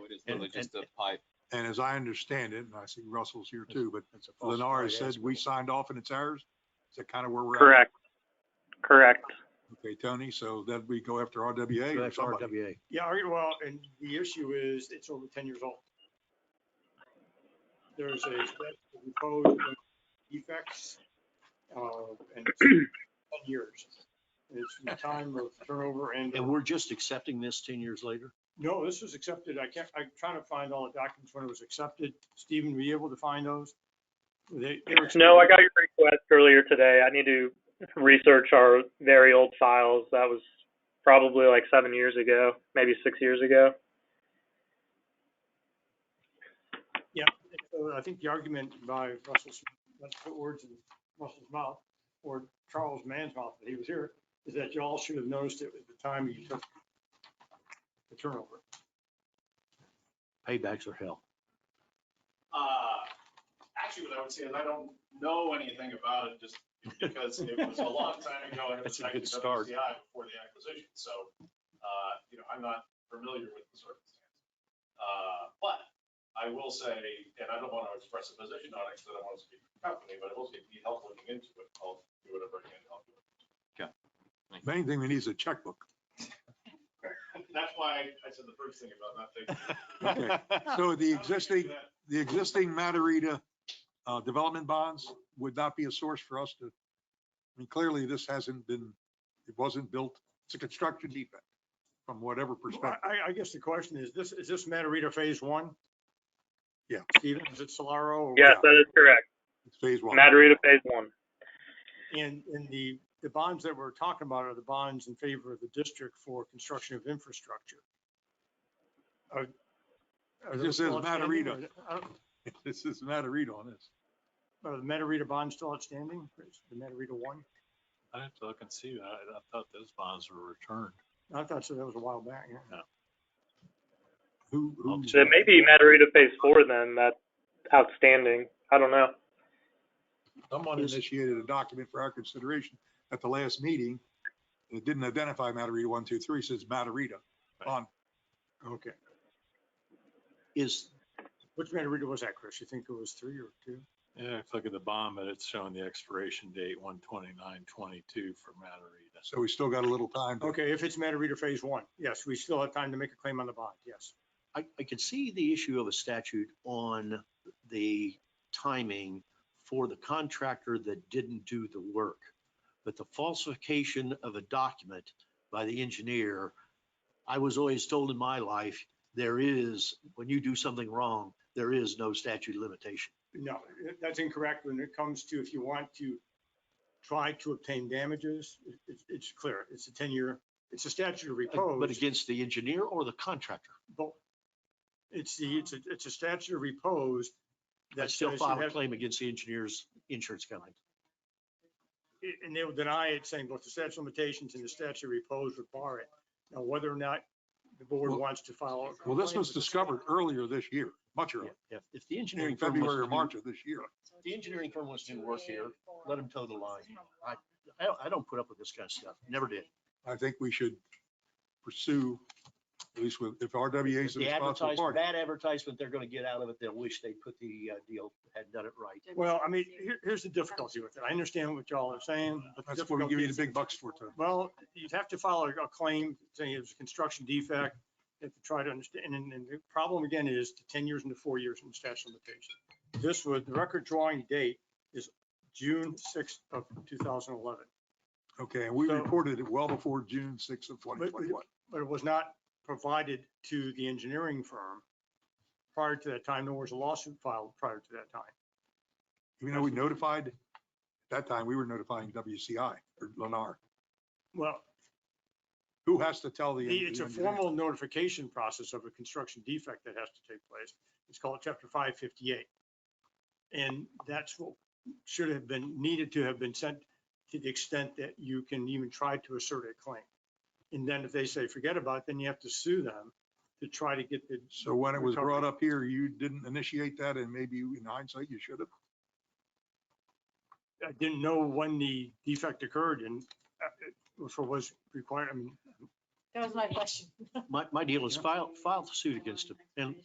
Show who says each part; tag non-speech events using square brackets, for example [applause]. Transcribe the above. Speaker 1: Really
Speaker 2: And-
Speaker 1: just a
Speaker 2: and-
Speaker 1: pipe.
Speaker 3: And as I understand it, and I see Russell's here too, but
Speaker 2: That's a false
Speaker 3: Lennar
Speaker 2: start,
Speaker 3: says we
Speaker 2: yes.
Speaker 3: signed off and it's ours. Is that kind of where we're at?
Speaker 4: Correct. Correct.
Speaker 3: Okay, Tony, so then we go after RWA
Speaker 5: Go
Speaker 3: or
Speaker 5: after
Speaker 3: somebody.
Speaker 5: RWA.
Speaker 2: Yeah, all right, well, and the issue is it's over ten years old. There's a set of proposed defects, uh, and it's ten years. It's the time of turnover and,
Speaker 5: And we're just accepting this 10 years later?
Speaker 2: no, this was accepted. I can't, I'm trying to find all the documents when it was accepted. Stephen, were you able to find those? They, they were.
Speaker 4: No, I got your request earlier today. I need to research our very old files. That was probably like seven years ago, maybe six years ago.
Speaker 2: Yeah, so I think the argument by Russell, Smith, let's put words in Russell's mouth, or Charles Mann's mouth, that he was here, is that you all should have noticed it at the time you took the turnover.
Speaker 5: Paybacks are hell.
Speaker 6: Uh, actually, what I would say is I don't know anything about it just because it was a long time ago and it
Speaker 5: That's
Speaker 6: was
Speaker 5: a good
Speaker 6: actually
Speaker 5: start.
Speaker 6: WCI before the acquisition. So, uh, you know, I'm not familiar with the circumstances. Uh, but I will say, and I don't want to express a position on it because I don't want to speak for the company, but I will say if you need help looking into it, I'll do whatever I can to help you.
Speaker 3: Main thing we need is a checkbook.
Speaker 6: That's why I said the first thing about not taking.
Speaker 3: So the
Speaker 6: How do we get
Speaker 3: existing,
Speaker 6: that?
Speaker 3: the existing Matarita uh, development bonds would not be a source for us to, I mean, clearly this hasn't been, it wasn't built, it's a construction defect from whatever perspective.
Speaker 2: I, I guess the question is, this, is this Matarita Phase One?
Speaker 3: Yeah.
Speaker 2: Stephen, is it Solaro?
Speaker 4: Yes, that is correct.
Speaker 3: It's Phase one.
Speaker 4: Matarita Phase One.
Speaker 2: And, and the, the bonds that we're talking about are the bonds in favor of the district for construction of infrastructure. Are- are
Speaker 3: This
Speaker 2: those
Speaker 3: is
Speaker 2: still outstanding,
Speaker 3: Matarita.
Speaker 2: or- I don't-
Speaker 3: [laughs] This is Matarita on this.
Speaker 2: Are the Metarita bonds still outstanding? Is The Metarita one?
Speaker 7: I have to look and see. I, I thought those bonds were returned.
Speaker 2: I thought so, that was a while back, yeah.
Speaker 3: Who,
Speaker 2: Hmm.
Speaker 3: who?
Speaker 4: So maybe Matarita Phase Four then, that's outstanding. I don't know.
Speaker 3: Someone initiated a document for our consideration at the last meeting. and It didn't identify Matarita one, two, three, says Matarita on. Okay.
Speaker 5: Is,
Speaker 2: Which Metarita was that, Chris? You think it was three or two?
Speaker 7: Yeah, if I look at the bond, but it's showing the expiration date one twenty-nine twenty-two for Matarita.
Speaker 3: So we still got a little time. to-
Speaker 2: Okay, if it's Metarita phase one, yes, we still have time to make a claim on the bond, yes.
Speaker 5: I, I could see the issue of a statute on the timing for the contractor that didn't do the work. But the falsification of a document by the engineer, I was always told in my life, there is, when you do something wrong, there is no statute of limitation.
Speaker 2: No, that's incorrect when it comes to if you want to try to obtain damages, it- it's, it's clear, it's a ten-year, it's a statute of
Speaker 5: But
Speaker 2: repose,
Speaker 5: against the engineer or the contractor,
Speaker 2: but it's the, it's a, it's a statute of repose
Speaker 5: I
Speaker 2: that
Speaker 5: still
Speaker 2: says you
Speaker 5: file a
Speaker 2: have-
Speaker 5: claim against the engineer's insurance company.
Speaker 2: it- and they will deny it, saying both the statute of limitations and the statute of repose would bar it. Now, whether or not the board
Speaker 3: Well-
Speaker 2: wants to file. a
Speaker 3: Well, this
Speaker 2: complaint
Speaker 3: was
Speaker 2: with the-
Speaker 3: discovered earlier this year, much earlier,
Speaker 5: Yeah, If the engineering
Speaker 3: in
Speaker 5: firm wants
Speaker 3: February or
Speaker 5: to do-
Speaker 3: March of this year.
Speaker 5: the engineering firm wants to do work here, let them toe the line. I, I don't, I don't put up with this kind of stuff. Never did.
Speaker 3: I think we should pursue, at least with, if RWA is
Speaker 5: The
Speaker 3: the responsible
Speaker 5: advertisement,
Speaker 3: party.
Speaker 5: bad advertisement they're gonna get out of it, they'll wish they put the uh, deal, had done it right.
Speaker 2: Well, I mean, here, here's the difficulty with it. I understand what y'all are saying. but the
Speaker 3: That's what we give you the
Speaker 2: difficulty is-
Speaker 3: big bucks for, Tony.
Speaker 2: Well, you'd have to file a a claim saying it was a construction defect. You have to try to understand, and, and the problem again is the ten years and the four years in the statute of limitation. This was, the record drawing date is June sixth of two thousand eleven,
Speaker 3: Okay, and we
Speaker 2: So-
Speaker 3: reported it well before June sixth of twenty twenty-one.
Speaker 2: but it was not provided to the engineering firm prior to that time, nor was a lawsuit filed prior to that time.
Speaker 3: Even though we notified, at that time, we were notifying WCI or Lennar,
Speaker 2: Well,
Speaker 3: who has to tell the.
Speaker 2: The- It's a
Speaker 3: the engineer?
Speaker 2: formal notification process of a construction defect that has to take place. It's called chapter five fifty-eight. And that's what should have been, needed to have been sent to the extent that you can even try to assert a claim. And then if they say, forget about it, then you have to sue them to try to get the,
Speaker 3: So when it was brought up here, you didn't initiate that and maybe you- in hindsight, you should have.
Speaker 2: I didn't know when the defect occurred and uh, it- for was required, I mean,
Speaker 8: That was my question.
Speaker 5: My, my deal is file, file the suit against them and